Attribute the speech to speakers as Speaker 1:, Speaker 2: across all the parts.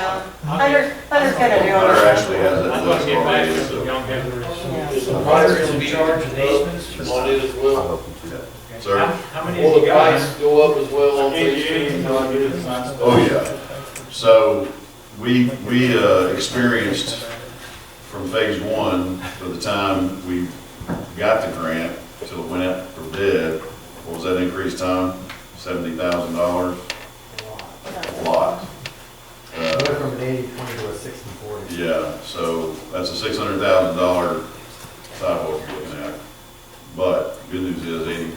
Speaker 1: Hunter, Hunter's gonna do
Speaker 2: Hunter
Speaker 1: it.
Speaker 2: actually has that
Speaker 3: I'm gonna
Speaker 2: list
Speaker 3: get back
Speaker 2: already,
Speaker 3: to the
Speaker 2: so.
Speaker 3: young hitters.
Speaker 1: Yeah.
Speaker 4: Is the price in charge of easements?
Speaker 5: On it as
Speaker 2: I
Speaker 5: well.
Speaker 2: hope you do that. Sir?
Speaker 3: How how many have
Speaker 5: Will
Speaker 3: you
Speaker 5: the
Speaker 3: got?
Speaker 5: price go up as well on these
Speaker 3: Eighty-eight,
Speaker 5: things?
Speaker 3: no, you didn't sign stuff.
Speaker 2: Oh, yeah. So we, we uh, experienced from phase one to the time we got the grant till it went out for bid, what was that increase, Tom? Seventy thousand dollars? A lot.
Speaker 4: Went
Speaker 2: Uh,
Speaker 4: from an eighty twenty to a sixty forty.
Speaker 2: Yeah, so that's a six hundred thousand dollar sidewalk you're looking at. But good news is eighty,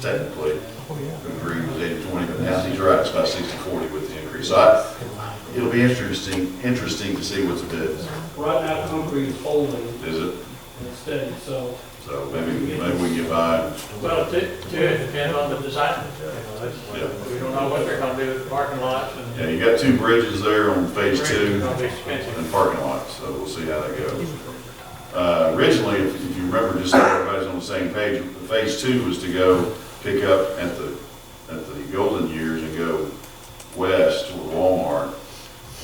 Speaker 2: technically, the agreement was eighty twenty, but now he's right, it's about sixty forty with the increase. So I, It'll be interesting, interesting to see what's bid,
Speaker 6: Right now, concrete is holding
Speaker 2: is it?
Speaker 6: instead, so.
Speaker 2: So maybe, maybe we can get by.
Speaker 3: Well, it depends on the design material. That's- We don't know what they're gonna do with parking lots and.
Speaker 2: Yeah, you got two bridges there on phase
Speaker 3: It's
Speaker 2: two
Speaker 3: gonna be expensive.
Speaker 2: and parking lots, so we'll see how that goes. Uh, originally, if if you remember, just so everybody's on the same page, phase two was to go pick up at the, at the golden years and go west toward Walmart.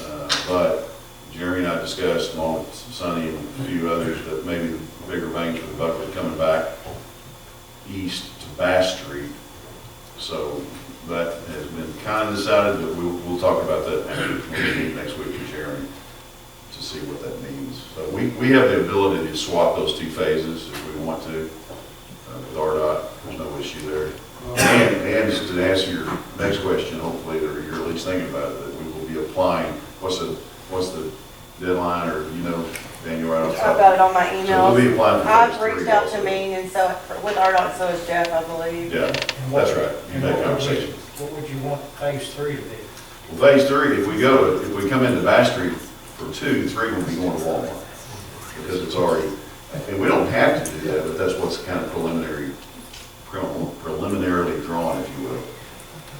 Speaker 2: Uh, But Jerry and I discussed, along with Sonny and a few others, that maybe the bigger bang for the buck was coming back east to Bass Street. So that has been kind of decided, but we'll, we'll talk about that after the meeting next week with Jeremy to see what that means. So we, we have the ability to swap those two phases if we want to. uh, With RDOT, there's no issue there. And, and just to answer your next question, hopefully, or you're at least thinking about it, that we will be applying, what's the, what's the deadline or, you know, Daniel, right off the
Speaker 1: I've
Speaker 2: top?
Speaker 1: got it on my
Speaker 2: So we'll
Speaker 1: emails.
Speaker 2: be applying for
Speaker 1: I've
Speaker 2: phase three
Speaker 1: reached out
Speaker 2: also.
Speaker 1: to Maine and so, with RDOT, so is Jeff, I believe.
Speaker 2: Yeah, that's right. You had
Speaker 4: And what would we-
Speaker 2: conversation.
Speaker 4: What would you want phase three to be?
Speaker 2: Well, phase three, if we go, if we come into Bass Street for two, three will be going to Walmart. Because it's already, and we don't have to do that, but that's what's kind of preliminary, prelim- preliminarily drawn, if you will.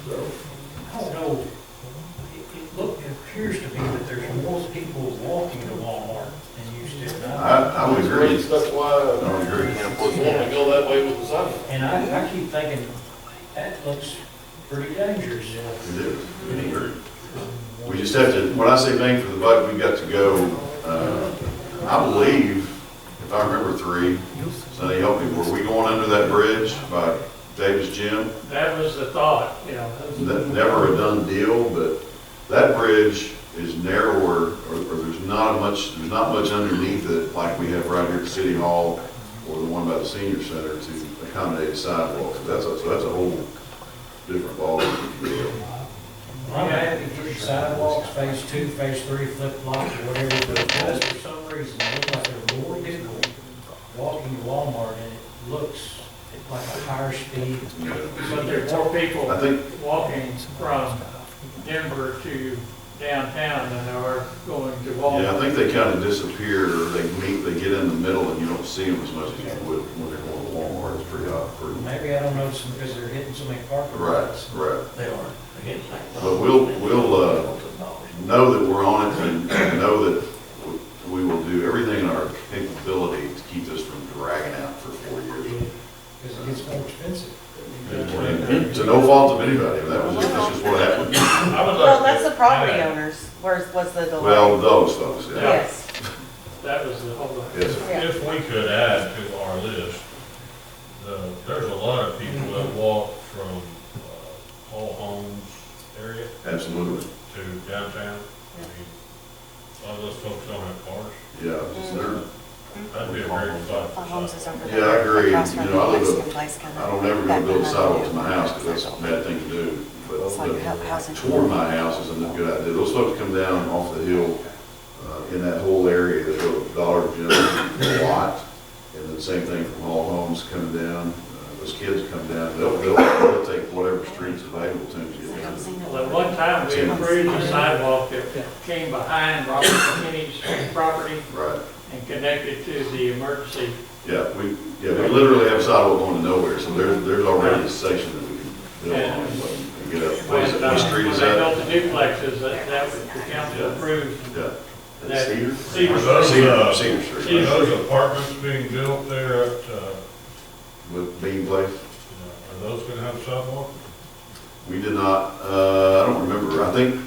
Speaker 2: So,
Speaker 4: I don't know. It, it look, it appears to be that there's more people walking to Walmart than used to. And
Speaker 2: I,
Speaker 4: I-
Speaker 2: I would agree.
Speaker 5: That's why
Speaker 2: I
Speaker 5: I
Speaker 2: would agree.
Speaker 5: was wanting to go that way with the sign.
Speaker 4: And I, I keep thinking, that looks pretty dangerous.
Speaker 2: We do. We agree. We just have to, when I say bang for the buck, we've got to go, uh, I believe, if I remember three, Sonny, help me, were we going under that bridge by Davis Gym?
Speaker 3: That was the thought, you know. that was-
Speaker 2: That- Never a done deal, but that bridge is narrower, or, or there's not much, there's not much underneath it like we have right here at City Hall or the one by the senior center to accommodate a sidewalk. So That's a, so that's a whole different ballgame, if you will.
Speaker 4: I'm happy to get sidewalks, phase two, phase three, flip flops, or whatever, but it does for some reason, it looks like there are more people walking to Walmart, and it looks like a higher speed.
Speaker 3: But there are more people
Speaker 2: I think,
Speaker 3: walking from Denver to downtown than there are going to
Speaker 2: yeah, I
Speaker 3: Walmart.
Speaker 2: think they kind of disappear, or they meet, they get in the middle and you don't see them as much as you would when they're going to Walmart, it's pretty, odd, pretty.
Speaker 4: Maybe I don't notice them because they're hitting so many parking
Speaker 2: Right,
Speaker 4: lots.
Speaker 2: right.
Speaker 4: They are, they're hitting like.
Speaker 2: But we'll, we'll, uh, know that we're on it and and know that we will do everything in our capability to keep this from dragging out for four years.
Speaker 4: Because it gets more expensive.
Speaker 2: And To no fault of anybody, that was just, that's just what happened.
Speaker 3: I would
Speaker 1: Well,
Speaker 3: like
Speaker 1: that's
Speaker 3: to-
Speaker 1: the property owners, where's, was the delay.
Speaker 2: Well, those folks, yeah.
Speaker 1: Yes,
Speaker 3: That was the whole.
Speaker 2: Yes,
Speaker 1: yeah.
Speaker 7: If we could add to our list, the, there's a lot of people that walk from uh, Hall Homes area
Speaker 2: absolutely,
Speaker 7: to downtown. I mean, A lot of those folks don't have cars.
Speaker 2: yeah. it's there.
Speaker 7: That'd be a great spot
Speaker 1: Our homes is
Speaker 7: for
Speaker 1: over
Speaker 2: Yeah,
Speaker 1: there.
Speaker 2: I agree.
Speaker 1: across
Speaker 2: You
Speaker 1: from
Speaker 2: know, I
Speaker 1: the
Speaker 2: live
Speaker 1: Mexican place kinda.
Speaker 2: I don't ever go
Speaker 1: Back
Speaker 2: build
Speaker 1: behind
Speaker 2: sidewalks
Speaker 1: you.
Speaker 2: in my house, because that's a bad thing to do.
Speaker 1: It's like
Speaker 2: But
Speaker 1: hou- housing.
Speaker 2: toward my house is a good idea. Those folks come down off the hill, uh, in that whole area, they go to Dollar General a lot. And then same thing from all homes coming down, uh, those kids come down, they'll, they'll, they'll take whatever streets available to them to get down.
Speaker 3: Well, at one time, we improved the sidewalk that came behind Robert McKinney's property
Speaker 2: Right,
Speaker 3: and connected to the emergency.
Speaker 2: yeah, we, yeah, we literally have sidewalk going to nowhere, so there's, there's already a section that we can build on and get up. What is it,
Speaker 3: When, uh,
Speaker 2: what street is that?
Speaker 3: When they built the duplexes, that, that was, the council approved
Speaker 2: Yeah.
Speaker 3: that.
Speaker 2: Cedar?
Speaker 3: Cedar.
Speaker 7: Those,
Speaker 2: Cedar,
Speaker 7: uh,
Speaker 2: Cedar Street.
Speaker 7: it.
Speaker 2: right?
Speaker 7: Those apartments being built there at, uh,
Speaker 2: With Bean Place?
Speaker 7: are those gonna have sidewalks?
Speaker 2: We did not, uh, I don't remember, I think